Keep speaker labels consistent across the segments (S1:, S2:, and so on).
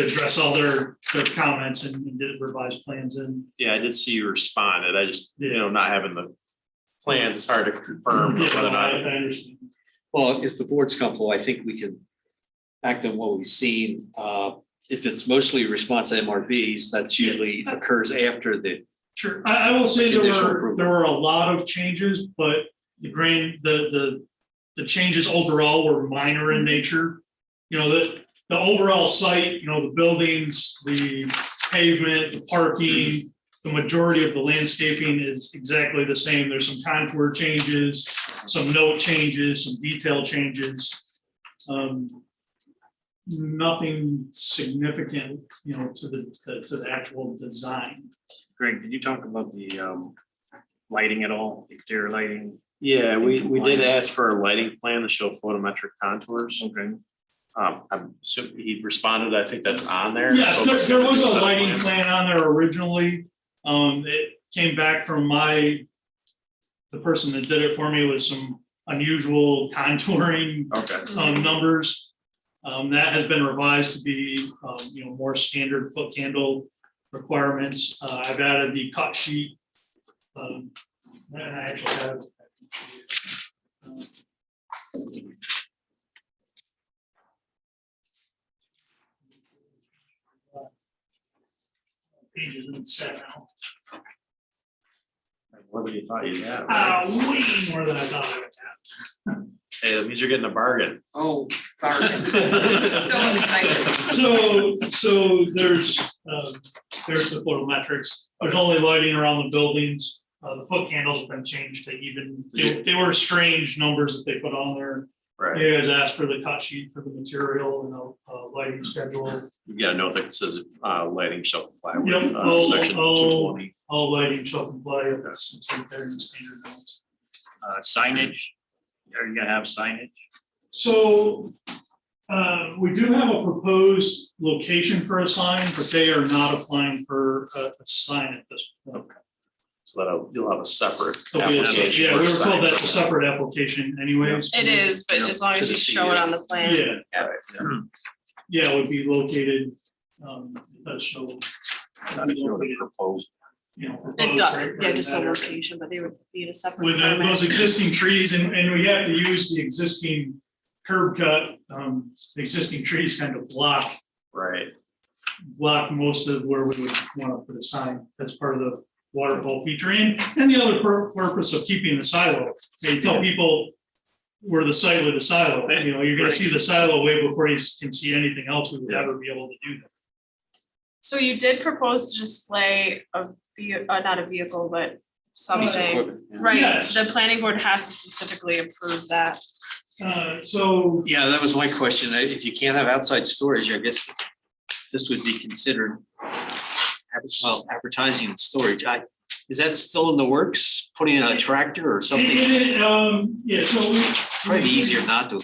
S1: address all their, their comments and and did revised plans and
S2: Yeah, I did see you responded. I just, you know, not having the plans, it's hard to confirm
S1: Yeah,
S2: whether or
S1: I
S2: not.
S1: I understand.
S3: Well, if the board's comfortable, I think we can act on what we've seen. Uh, If it's mostly response MRBs, that's usually occurs after the,
S1: Sure, I, I will say there
S3: Conditional
S1: were,
S3: approval.
S1: there were a lot of changes, but the grand, the, the, the changes overall were minor in nature. You know, the, the overall site, you know, the buildings, the pavement, the parking, the majority of the landscaping is exactly the same. There's some contour changes, some note changes, some detail changes. Um, Nothing significant, you know, to the, to the actual design.
S4: Greg, did you talk about the um lighting at all, exterior lighting?
S2: Yeah, we, we did ask for a lighting plan to show photometric contours.
S4: Okay.
S2: Um, I'm assuming he responded. I think that's on there.
S1: Yes,
S2: So-
S1: there, there was a
S2: Set of
S1: lighting
S2: plans.
S1: plan on there originally. Um, it came back from my, the person that did it for me with some unusual contouring,
S2: Okay,
S1: um, numbers. Um, that has been revised to be, um, you know, more standard foot candle requirements. Uh, I've added the cut sheet. Um, and I actually have. Pages in set now.
S2: what would you thought you had? right?
S1: Uh, way more than I thought I would have.
S2: Hey, that means you're getting a bargain.
S5: Oh, sorry. So excited.
S1: So, so there's, um, there's the photometrics, there's only lighting around the buildings, uh, the foot candles have been changed to even, they, they were strange numbers that they put on there.
S2: Right.
S1: You guys asked for the cut sheet for the material and the, uh, lighting schedule,
S2: You gotta know that it says, uh, lighting shall comply with,
S1: Yep, Oh,
S2: uh,
S1: I'll-
S2: section
S1: I'll-
S2: two twenty.
S1: all lighting shall comply, that's, it's right there in the standard notes.
S4: Uh signage, are you gonna have signage?
S1: So, uh, we do have a proposed location for a sign, but they are not applying for a, a sign at this point.
S2: So that'll, you'll have a separate
S1: Okay,
S2: application.
S1: Yeah,
S2: for
S1: we were told
S2: sign.
S1: that's a separate application anyways.
S6: It is, but as long as you show it on the plan.
S1: Yeah,
S2: Right, yeah.
S1: yeah, it would be located, um, that's so.
S4: proposed.
S1: you know,
S6: It
S1: proposed right-
S6: does, yeah,
S1: right
S6: just a
S1: in that area.
S6: location, but they would need a separate.
S1: Oh, With the-
S6: permit.
S1: those existing trees and, and we have to use the existing curb cut, um, the existing trees kind of block,
S2: Right.
S1: block most of where we would want to put a sign. That's part of the waterfall feature and, and the other pur- purpose of keeping the silo. They tell people we're the site with the silo, you know, you're gonna see the silo way before you s- can see anything else. We would
S2: Yeah.
S1: never be able to do that.
S6: So you did propose to display a ve- uh, not a vehicle, but
S1: Piece of
S6: something, right?
S1: Yes.
S6: The planning board has to specifically approve that.
S1: Uh, so,
S3: yeah, that was my question. I- If you can't have outside storage, I guess this would be considered adver- well, advertising and storage. I, is that still in the works? Putting in a tractor or
S1: it-
S3: something?
S1: it- it, um, yeah, so we.
S3: Probably easier not to.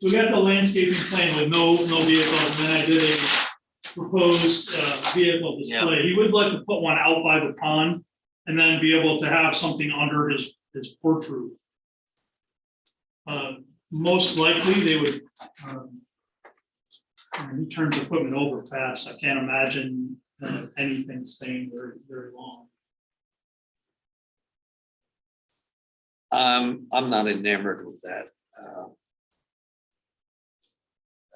S1: We got the landscaping plan with no, no vehicles, and then I did a proposed, uh, vehicle display. He would like to put one out by the pond and then be able to have something under his, his porch roof. Uh, most likely, they would, um, I mean, he turns equipment over fast. I can't imagine uh, anything staying very, very long.
S3: Um, I'm not enamored with that. Uh,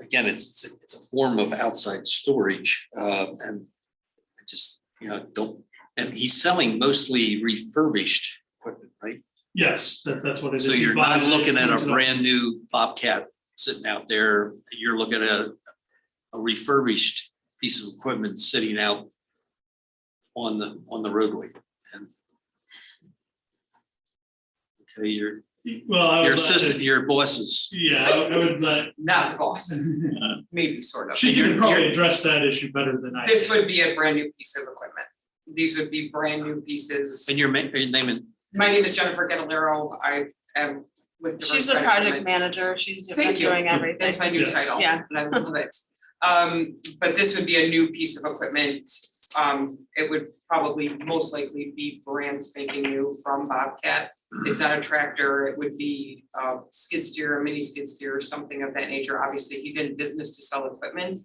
S3: Again, it's, it's a- it's a form of outside storage, uh, and I just, you know, don't, and he's selling mostly refurbished equipment, right?
S1: Yes, that, that's what it is.
S3: So
S1: He
S3: you're not
S1: buys it,
S3: looking at
S1: turns
S3: a
S1: it over.
S3: brand new Bobcat sitting out there, you're looking at a refurbished piece of equipment sitting out on the, on the roadway. And Okay, you're,
S1: Well, I would.
S3: your
S1: let it-
S3: assistant, your bosses.
S1: Yeah, I would- I would let
S5: Not the boss, maybe sort of.
S1: She
S3: You're-
S1: can probably
S3: you're-
S1: address that issue better than I.
S5: This
S1: can.
S5: would be a brand new piece of equipment. These would be brand new pieces.
S3: And your ma- your name and
S5: My name is Jennifer Gedalero. I am with.
S6: She's the
S5: Diversified
S6: project
S5: Equipment.
S6: manager. She's do-
S5: Thank you.
S6: doing everything.
S5: That's my new
S1: Yes.
S5: title.
S6: Yeah.
S5: And I love it. Um, but this would be a new piece of equipment. Um, it would probably most likely be brand spanking new from Bobcat. it's not a tractor, it would be uh skid steer, a mini skid steer, or something of that nature. Obviously, he's in business to sell equipment.